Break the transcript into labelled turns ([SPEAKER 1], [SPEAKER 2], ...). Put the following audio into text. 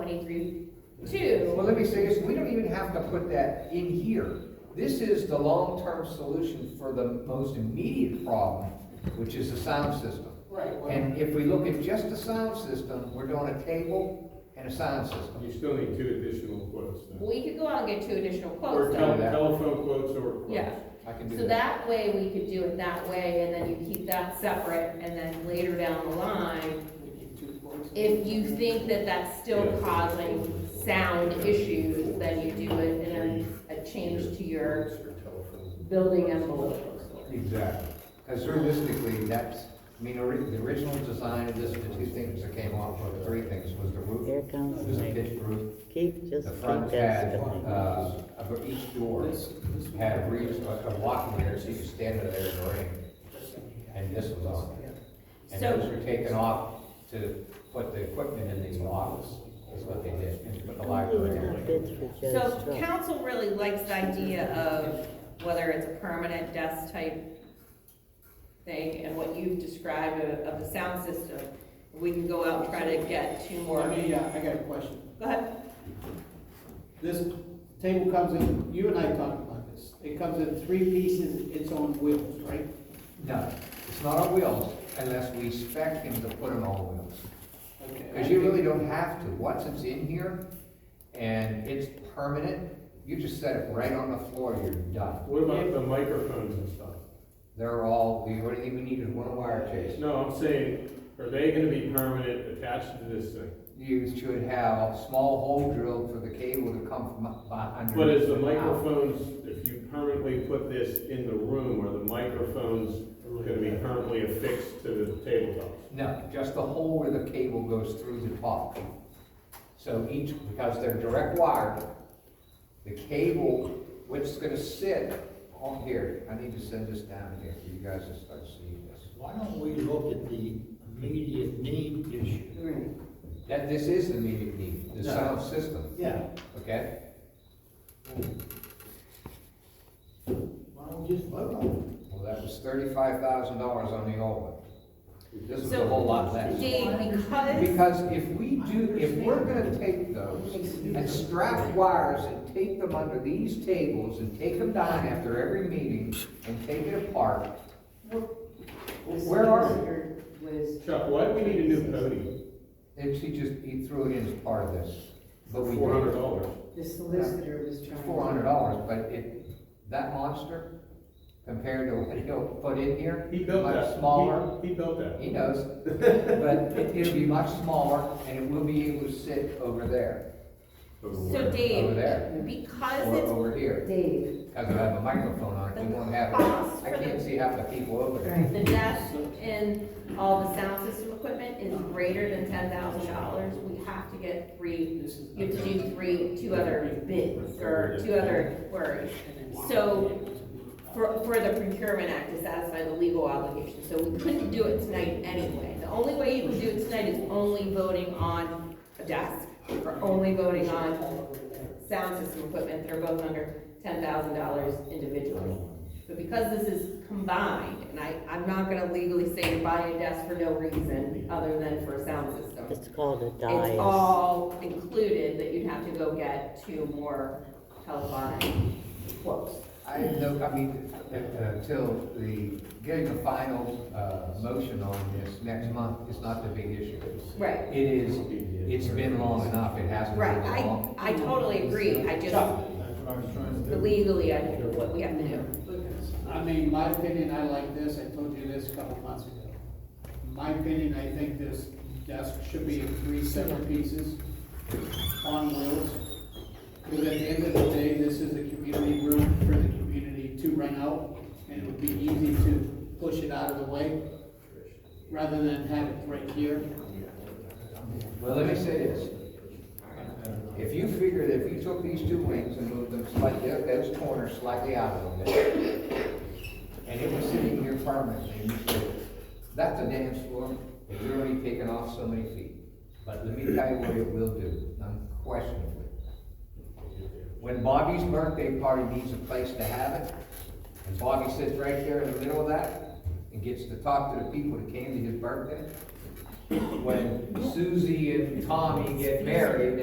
[SPEAKER 1] twenty-three two.
[SPEAKER 2] Well, let me say this, we don't even have to put that in here. This is the long-term solution for the most immediate problem, which is the sound system.
[SPEAKER 3] Right, well,
[SPEAKER 2] And if we look at just the sound system, we're doing a table and a sound system.
[SPEAKER 4] You still need two additional quotes then.
[SPEAKER 1] We could go out and get two additional
[SPEAKER 4] Or
[SPEAKER 1] quotes
[SPEAKER 4] tele-
[SPEAKER 1] though.
[SPEAKER 2] that.
[SPEAKER 4] telephone quotes or quotes.
[SPEAKER 1] Yeah,
[SPEAKER 2] I can do
[SPEAKER 1] so
[SPEAKER 2] that.
[SPEAKER 1] that way we could do it that way and then you keep that separate and then later down the line, if you think that that's still causing sound issues, then you do it in a, a change to your building envelope.
[SPEAKER 2] Exactly. Because realistically, that's, I mean, ori- the original design of this, the two things that came off, or the three things, was the roof.
[SPEAKER 5] Here comes
[SPEAKER 2] It was a
[SPEAKER 5] Mike.
[SPEAKER 2] pitched roof.
[SPEAKER 5] Keep, just
[SPEAKER 2] The
[SPEAKER 5] keep
[SPEAKER 2] front had,
[SPEAKER 5] that.
[SPEAKER 2] uh, of each door had a breeze, a walking there, so you could stand under there in the rain. And this was on there. And
[SPEAKER 1] So-
[SPEAKER 2] those were taken off to put the equipment in these lockers, is what they did, and put the library
[SPEAKER 5] Doing a
[SPEAKER 2] in.
[SPEAKER 5] bid for Joe's
[SPEAKER 1] So
[SPEAKER 5] truck.
[SPEAKER 1] council really likes the idea of whether it's a permanent desk type thing and what you've described of, of the sound system. We can go out and try to get two more.
[SPEAKER 3] I mean, yeah, uh, I got a question.
[SPEAKER 1] Go ahead.
[SPEAKER 3] This table comes in, you and I talked about this, it comes in three pieces, it's on wheels, right?
[SPEAKER 2] No, it's not on wheels unless we spec him to put them on wheels.
[SPEAKER 3] Okay.
[SPEAKER 2] Because you really don't have to, once it's in here and it's permanent, you just set it right on the floor, you're done.
[SPEAKER 4] What about the microphones and stuff?
[SPEAKER 2] They're all, the only thing we need is one wire chase.
[SPEAKER 4] No, I'm saying, are they gonna be permanent attached to this thing?
[SPEAKER 2] You should have a small hole drilled for the cable to come from behind.
[SPEAKER 4] But is the microphones, if you permanently put this in the room, are the microphones gonna be permanently affixed to the tabletops?
[SPEAKER 2] No, just the hole where the cable goes through the top. So each, because they're direct wired, the cable, which is gonna sit on here, I need to send this down here for you guys to start seeing this.
[SPEAKER 6] Why don't we look at the immediate need issue?
[SPEAKER 2] That, this is the meeting need, the
[SPEAKER 6] Yeah.
[SPEAKER 2] sound system,
[SPEAKER 6] Yeah.
[SPEAKER 2] okay?
[SPEAKER 6] Why don't we just vote on
[SPEAKER 2] Well, that was thirty-five thousand dollars on the old one. This is a whole lot less.
[SPEAKER 1] Dave, because,
[SPEAKER 2] Because if we do, if we're gonna take those and strap wires and take them under these tables and take them down after every meeting and take it apart, Where are
[SPEAKER 7] Was,
[SPEAKER 4] Chuck, why do we need a new podium
[SPEAKER 2] then she just, he threw it in as part of this. But
[SPEAKER 4] for
[SPEAKER 2] we
[SPEAKER 4] four hundred dollars?
[SPEAKER 7] the solicitor was trying.
[SPEAKER 2] Four hundred dollars, but it, that monster compared to what he'll put in here,
[SPEAKER 4] He built
[SPEAKER 2] Much
[SPEAKER 4] that.
[SPEAKER 2] smaller.
[SPEAKER 4] He he built that.
[SPEAKER 2] He knows, but it- it'll be much smaller and it will be able to sit over there,
[SPEAKER 1] so
[SPEAKER 2] over
[SPEAKER 1] Dave,
[SPEAKER 2] there,
[SPEAKER 1] because
[SPEAKER 2] or
[SPEAKER 1] it's
[SPEAKER 2] over here.
[SPEAKER 7] Dave,
[SPEAKER 2] Because I have a microphone on it, we won't have it. I can't see half the people over there.
[SPEAKER 1] the desk and all the sound system equipment is greater than ten thousand dollars, we have to get three,
[SPEAKER 3] This is-
[SPEAKER 1] you have to do three, two other bids or two other queries. So for, for the procurement act to satisfy the legal obligation, so we couldn't do it tonight anyway. The only way you can do it tonight is only voting on a desk or only voting on sound system equipment that are both under ten thousand dollars individually. But because this is combined, and I, I'm not gonna legally say to buy a desk for no reason other than for a sound system.
[SPEAKER 5] It's called a
[SPEAKER 1] It's
[SPEAKER 5] dais.
[SPEAKER 1] all included, that you'd have to go get two more telephonic quotes.
[SPEAKER 2] I didn't know, I mean, uh, until the, getting a final, uh, motion on this next month is not the big issue.
[SPEAKER 1] Right,
[SPEAKER 2] It is, it's been long enough, it hasn't
[SPEAKER 1] right,
[SPEAKER 2] been
[SPEAKER 1] I,
[SPEAKER 2] long.
[SPEAKER 1] I totally agree, I just,
[SPEAKER 6] it? That's what I was trying to do.
[SPEAKER 1] legally, I know what we have to do.
[SPEAKER 3] I mean, my opinion, I like this, I told you this a couple months ago. My opinion, I think this desk should be in three separate pieces on wheels. Because at the end of the day, this is a community room for the community to rent out, and it would be easy to push it out of the way, rather than have it right here.
[SPEAKER 2] Well, let me say this. If you figure that if you took these two wings and moved them slightly, those corners slightly out a little bit, and it was sitting here permanently, and you said, that's a dance floor, and you're only taking off so many feet. But let me tell you what it will do, unquestionably. When Bobby's birthday party needs a place to have it, and Bobby sits right there in the middle of that, and gets to talk to the people that came to his birthday, when Susie and Tommy get married,